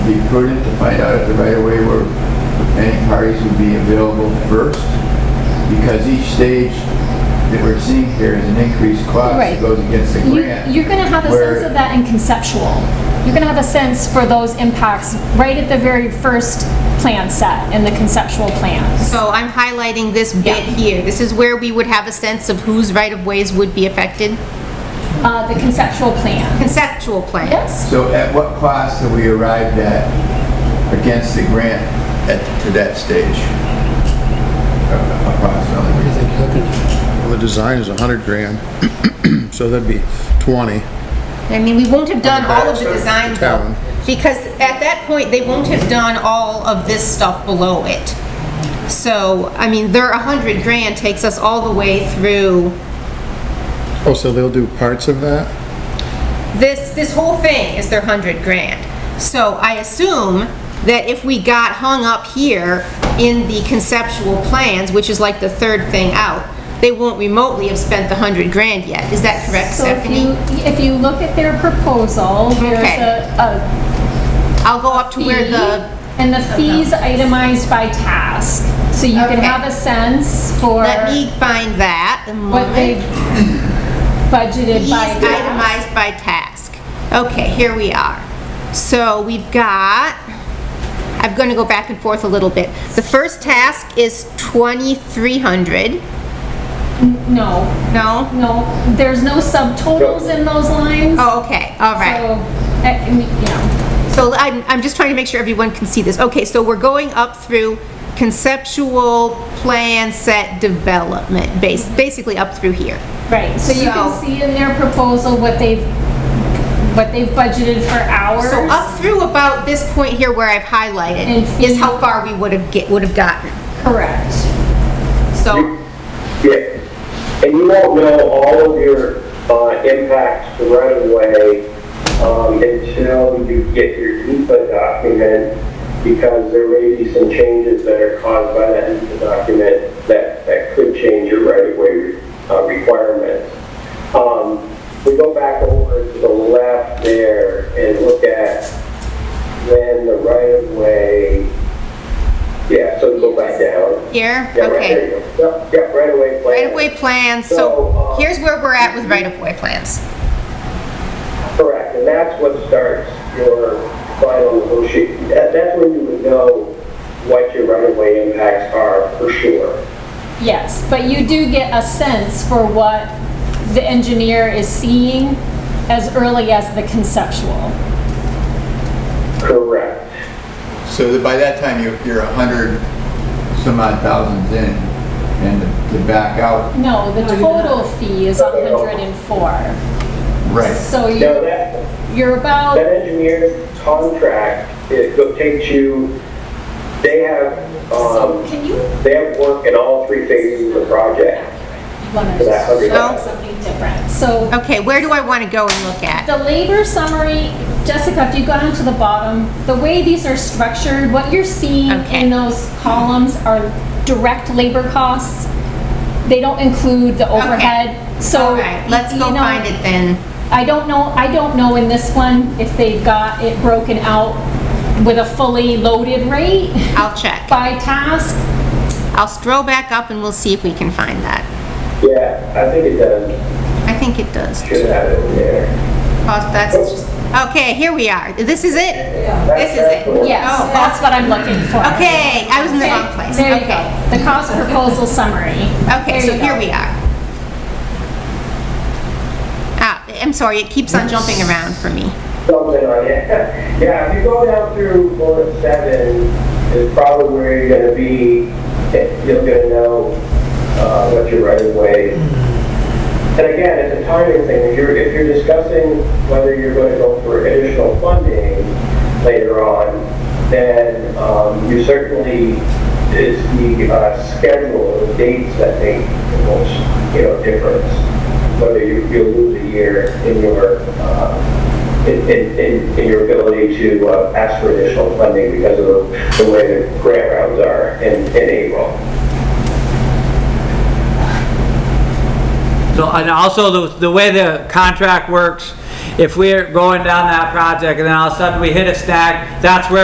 be prudent to find out if the right-of-way were, any parties would be available first, because each stage that we're seeing here is an increased cost Right. that goes against the You- grant. You're going to have a where- sense of that in conceptual. You're going to have a sense for those impacts right at the very first plan set, in the conceptual plan. So I'm highlighting this bit Yeah. here. This is where we would have a sense of whose right-of-ways would be affected. Uh, The conceptual plan. Conceptual plan. Yes? So at what cost have we arrived at against the grant at, to that stage? Approximately. Well, The design is 100 grand, so that'd be 20. I mean, we won't have done all of the backside of design the though, town. because at that point, they won't have done all of this stuff below it. So, I mean, their 100 grand takes us all the way through Oh, so they'll do parts of that? this, this whole thing is their 100 grand. So I assume that if we got hung up here in the conceptual plans, which is like the third thing out, they won't remotely have spent the 100 grand yet. Is that correct, So if you, Stephanie? if you look at their proposal, there's Okay. a- a I'll go up to fee, where the and the fees itemized by task. So you can Okay. have a sense for Let me find that. a what moment. they've budgeted Fees by task. itemized by task. Okay, here we are. So we've got, I'm gonna go back and forth a little bit. The first task is 2,300, No, no? no, there's no subtotals in those lines. Oh, okay, all right. So, eh, I- I mean, yeah. So I'm, I'm just trying to make sure everyone can see this. Okay, so we're going up through conceptual plan set development, base, basically up through here. Right, so you So- can see in their proposal what they've, what they've budgeted for hours. So up through about this point here where I've And highlighted fee. is how far we would have get, would have gotten. Correct. So, Yeah, and you won't know all of your uh, impacts to right away um, until you get your EPA document, because there may be some changes that are caused by that EPA document that, that could change your right away uh, requirements. Um, we go back over to the left there and look at when the right of way, yeah, so go back down. here, Yeah, right, okay. there you go. Yep, yep, right away plan. Right-of-way plans, so here's where we're at with right-of-way plans. Correct, and that's what starts your final negotiation. That, that's when you would know what your right-of-way impacts are for sure. Yes, but you do get a sense for what the engineer is seeing as early as the conceptual. Correct. So that by that time, you're, you're a hundred some odd thousands in, and to- to back out, No, the total fee is No, no, no. 104. right. So Now, you're, that, you're about, That engineer's contract, it go- takes you, they have, um, can you, they have work in all three phases of the project. want For that to hundred show dollars. something different. So Okay, where do I want to go and look at? The labor summary, Jessica, if you go down to the bottom, the way these are structured, what you're seeing Okay. in those columns are direct labor costs. They don't include the overhead, so. All right, let's you go know, find it then. I don't know, I don't know in this one if they've got it broken out with a fully loaded rate I'll check. by task. I'll scroll back up and we'll see if we can find that. Yeah, I think it does, I think it does. should have it in there. Cost- That's just, okay, here we are. This is it? This is it? Yes, Oh, that's what I'm looking for. Okay, I was in the wrong place. There you Okay. go, the cost proposal summary. Okay, There so you here go. we are. Ah, I'm sorry, it keeps on jumping around for me. Something on it. Yeah, if you go down through bullet seven, is probably where you're gonna be, eh, you're gonna know, uh, what your right of way. And again, it's a timing thing, if you're, if you're discussing whether you're gonna go for additional funding later on, then, um, you certainly, it's the, uh, schedule, the dates that make the most, you know, difference. Whether you, you lose a year in your, uh, in, in- in, in your ability to uh, ask for additional funding because of the- the way the grant rounds are in, in April. So, and also the, the way the contract works, if we're going down that project and then all of a sudden we hit a snag, that's where